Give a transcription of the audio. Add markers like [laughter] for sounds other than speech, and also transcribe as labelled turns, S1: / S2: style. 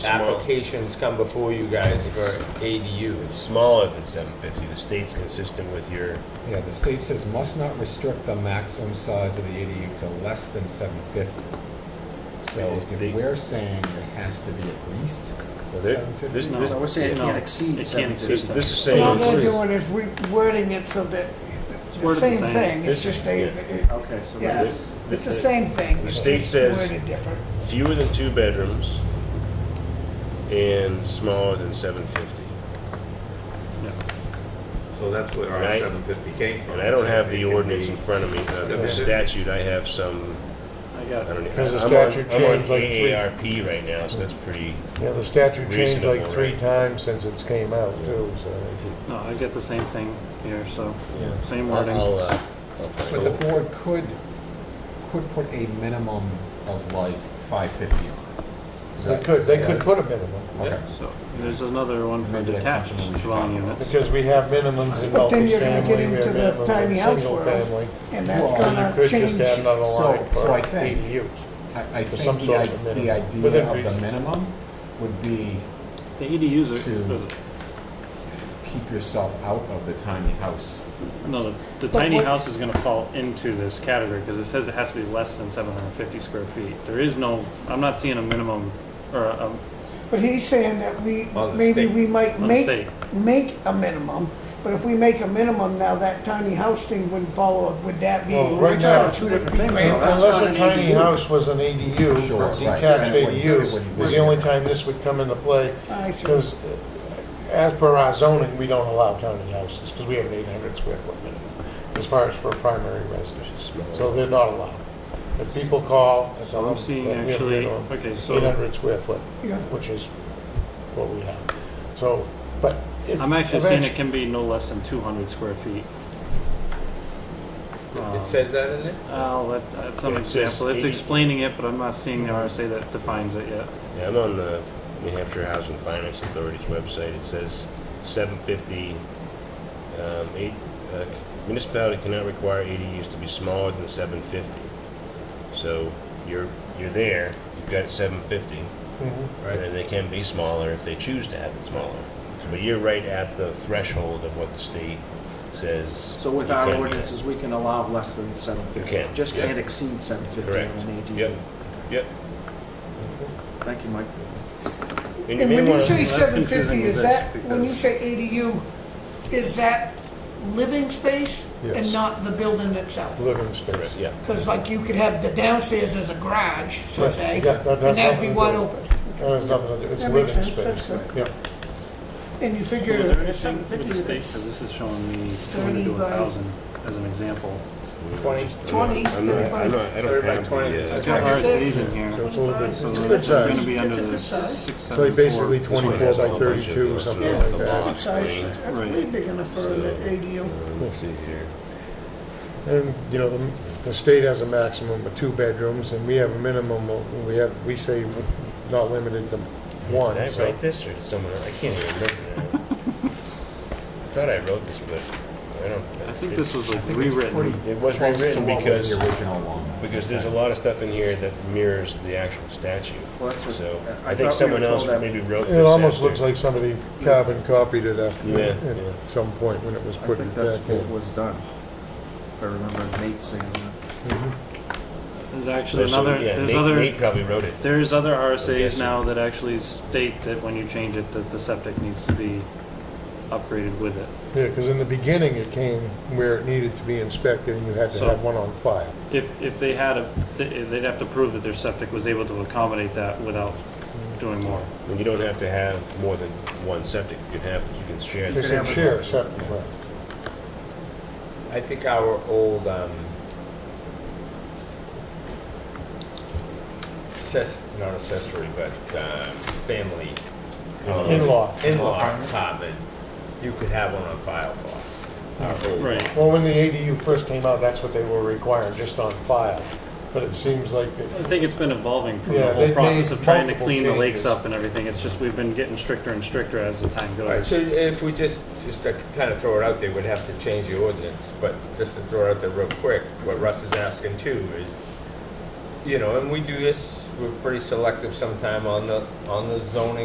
S1: Small,
S2: applications come before you guys for ADUs.
S1: smaller than seven fifty. The state's consistent with your,
S3: Yeah, the state says must not restrict the maximum size of the ADU to less than seven fifty. So
S1: They- they-
S3: if we're saying it has to be at least
S1: there-
S3: seven
S1: there's
S3: fifty,
S1: no-
S4: No, we're saying it
S1: No.
S4: can't exceed
S5: It
S4: seven
S5: can't
S1: this
S4: fifty.
S5: exceed
S1: this is
S6: All
S1: saying,
S6: they're
S1: this
S6: doing is rewording it so that, it's the
S5: Worded the
S6: same
S5: same.
S6: thing, it's
S1: This-
S6: just they,
S1: yeah.
S6: it-
S4: Okay, so
S6: yeah,
S4: that's,
S1: this-
S6: it's the same thing.
S1: The
S6: it's
S1: state
S6: just
S1: says-
S6: Worded different.
S1: fewer than two bedrooms and smaller than seven fifty.
S7: So that's where our
S1: Right.
S7: seven fifty came from.
S1: And I don't have
S7: It
S1: the
S7: can be-
S1: ordinance in front of me, uh, the statute, I have some,
S5: I
S1: I
S5: got it.
S1: don't. know.
S8: Because the
S1: I'm on-
S8: statute
S1: I'm on
S8: changed like three-
S1: AARP right now, so that's pretty,
S8: Yeah, the statute changed like
S1: Reasonable,
S8: three
S1: right?
S8: times since it's came out too, so.
S5: No, I get the same thing here, so,
S1: Yeah.
S5: same
S1: I'll,
S5: wording.
S1: I'll, uh, I'll
S3: but
S1: find
S3: the
S1: out.
S3: board could, could put a minimum of like five fifty on it. Is
S8: They
S3: that-
S8: could, they
S3: yeah.
S8: could put a minimum,
S3: Okay.
S5: So, there's another one for
S3: Maybe that's
S5: detached
S3: something we should
S5: dwelling
S3: talk about.
S5: units.
S8: because we have minimums in
S6: But then you're gonna
S8: multifamily,
S6: get
S8: we have
S6: into the
S8: minimums
S6: tiny
S8: in
S6: house
S8: single
S6: world.
S8: family.
S6: And that's
S3: Well, you
S8: You
S6: gonna
S8: could just
S6: change.
S8: add another
S3: So-
S8: line for
S3: so I think-
S8: ADUs.
S3: I, I
S8: To
S3: think
S8: some
S3: the,
S8: sort
S3: i-
S8: of minimum,
S3: the
S8: within
S3: idea of the
S8: reason.
S3: minimum would be
S5: The E ADUs
S3: To-
S5: are,
S3: keep yourself out of the tiny house.
S5: no, the- the
S6: But
S5: tiny
S6: what-
S5: house is gonna fall into this category, because it says it has to be less than seven hundred and fifty square feet. There is no, I'm not seeing a minimum, or um, a, a-
S6: But he's saying that we,
S7: On the
S6: maybe
S7: state.
S6: we might
S5: On the
S6: make,
S5: state.
S6: make a minimum, but if we make a minimum now, that tiny house thing wouldn't follow, would that be?
S8: Well, right now,
S6: so would it
S4: different
S6: be
S4: things,
S6: great?
S4: though. That's
S8: Unless
S4: not
S8: a
S4: an
S8: tiny
S4: ADU.
S8: house was an ADU,
S3: Sure, right. That's
S8: detached
S3: what- that's
S8: ADU
S3: what you
S8: was the
S3: would
S8: only
S3: do.
S8: time this would come into play,
S6: I see.
S8: because uh, as per our zoning, we don't allow tiny houses, because we have an eight hundred square foot minimum, as far as for primary residence, so they're not allowed. If people call, I tell
S5: I'm
S8: them
S5: seeing
S8: that we have a
S5: actually-
S8: minimum
S5: okay, so-
S8: 800 square foot,
S6: Yeah.
S8: which is what we have, so, but. if-
S5: I'm actually seeing
S8: eventually-
S5: it can be no less than two hundred square feet. Um,
S2: It says that in there?
S5: Oh, that, that's an
S1: Yeah, it says
S5: example, it's
S1: 80.
S5: explaining it, but I'm not seeing the RSA that defines it yet.
S1: Yeah, I'm on the New Hampshire Housing Finance Authority's website. It says seven fifty, um, eight, uh, municipality cannot require ADUs to be smaller than seven fifty. So you're, you're there, you've got seven fifty,
S8: Mhm.
S1: and they can be smaller if they choose to have it smaller. But you're right at the threshold of what the state says.
S4: so with
S1: you
S4: our
S1: can be.
S4: ordinances, we can allow less than seven fifty.
S1: You can,
S4: Just
S1: yeah.
S4: can't exceed seven fifty
S1: Correct.
S4: on an ADU.
S1: Yep, yep.
S4: Thank you, Mike.
S1: And you
S6: And
S1: may
S6: when you
S1: wanna-
S6: say
S5: that's
S6: seven
S5: confusing
S6: fifty, is
S5: with
S6: that,
S5: this,
S6: when you
S5: because-
S6: say ADU, is that living space and
S8: Yes.
S6: not the building itself?
S8: Living space.
S1: Yeah,
S6: Because like you could have the downstairs as a garage, so
S8: Right,
S6: say,
S8: you got- that-
S6: and
S8: that's
S6: that'd be
S8: nothing to
S6: wide
S8: do.
S6: open.
S8: That has Oh, nothing to do, it's
S6: That
S8: living
S6: makes
S8: space.
S6: sense, that's good.
S8: Yeah.
S6: And you
S5: So
S6: figure
S5: is there
S6: at
S5: anything
S6: seven
S5: with the
S6: fifty,
S5: state, 'cause
S6: it's
S5: this is showing me 200
S6: 30
S5: to
S6: by-
S5: 1,000 as an example.
S2: Twenty,
S6: twenty,
S1: I'm not, I'm
S6: thirty-five.
S1: not, I
S2: Thirty
S1: don't
S2: by
S1: have
S2: twenty.
S1: the, uh,
S5: There's
S6: That's
S5: no
S6: twenty-six.
S5: RSA's in here,
S8: It's a little bit-
S5: so this
S8: it's a good
S5: is going to
S8: size.
S5: be under
S6: It's a
S5: the
S6: good size.
S5: six,
S8: It's like
S5: seven,
S8: basically
S5: four.
S1: one
S8: twenty-four
S1: has a
S8: by
S1: whole bunch of
S8: thirty-two,
S1: those
S8: something
S6: Yeah,
S1: little
S8: like
S6: it's
S8: that.
S6: a good size,
S1: Right.
S6: that's way big enough for an ADU.
S1: let's see here.
S8: And, you know, the, the state has a maximum of two bedrooms, and we have a minimum, of- we have, we say not limited to one,
S1: Did I
S8: so.
S1: write this or did someone else? I can't even remember
S4: [laughs]
S1: now. I thought I wrote this, but I don't.
S5: I think this was like
S3: pretty-
S5: rewritten.
S1: It was
S3: Close to
S1: rewritten
S3: what was
S1: because,
S3: the original one.
S1: because there's a lot of stuff in here that mirrors the actual statute.
S4: Well, that's what-
S1: So
S4: I- I
S1: I
S4: thought we were
S1: think someone
S4: told
S1: else
S4: that-
S1: maybe wrote this.
S8: It almost
S1: after.
S8: looks like somebody carbon copied it after,
S1: Yeah,
S8: at
S1: yeah.
S8: some point when it was
S4: I
S8: put
S4: think that's
S8: back
S4: what
S8: in.
S4: was done, if I remember Nate saying that.
S5: There's actually
S1: So,
S5: another,
S1: yeah,
S5: there's
S1: Nate-
S5: other,
S1: Nate probably wrote it.
S5: there's other
S1: Yes,
S5: RSA's
S1: sir.
S5: now that actually state that when you change it, that the septic needs to be upgraded with it.
S8: Yeah, because in the beginning, it came where it needed to be inspected, and you had to
S5: So-
S8: have one on file.
S5: If, if they had a, they'd have to prove that their septic was able to accommodate that without doing more.
S1: And you don't have to have more than one septic. You can have, you can share.
S8: They
S1: this.
S4: could
S8: said
S4: have it-
S8: share, separate, right.
S2: I think our old, um, access, not accessory, but, um, family.
S1: uh, Uh-huh.
S2: um,
S8: In-law.
S2: In-law apartment, you could have one on file for. our old-
S5: Right.
S8: Well, when the ADU first came out, that's what they were requiring, just on file. But it seems like it
S5: I think it's been evolving from
S8: Yeah,
S5: the whole
S8: they've
S5: process
S8: made
S5: of trying to
S8: multiple
S5: clean the lakes
S8: changes.
S5: up and everything. It's just we've been getting stricter and stricter as the time
S2: All right,
S5: goes.
S2: so if we just, just to kind of throw it out there, we'd have to change the ordinance, but just to throw it out there real quick, what Russ is asking too is, you know, and we do this, we're pretty selective sometime on the, on the zoning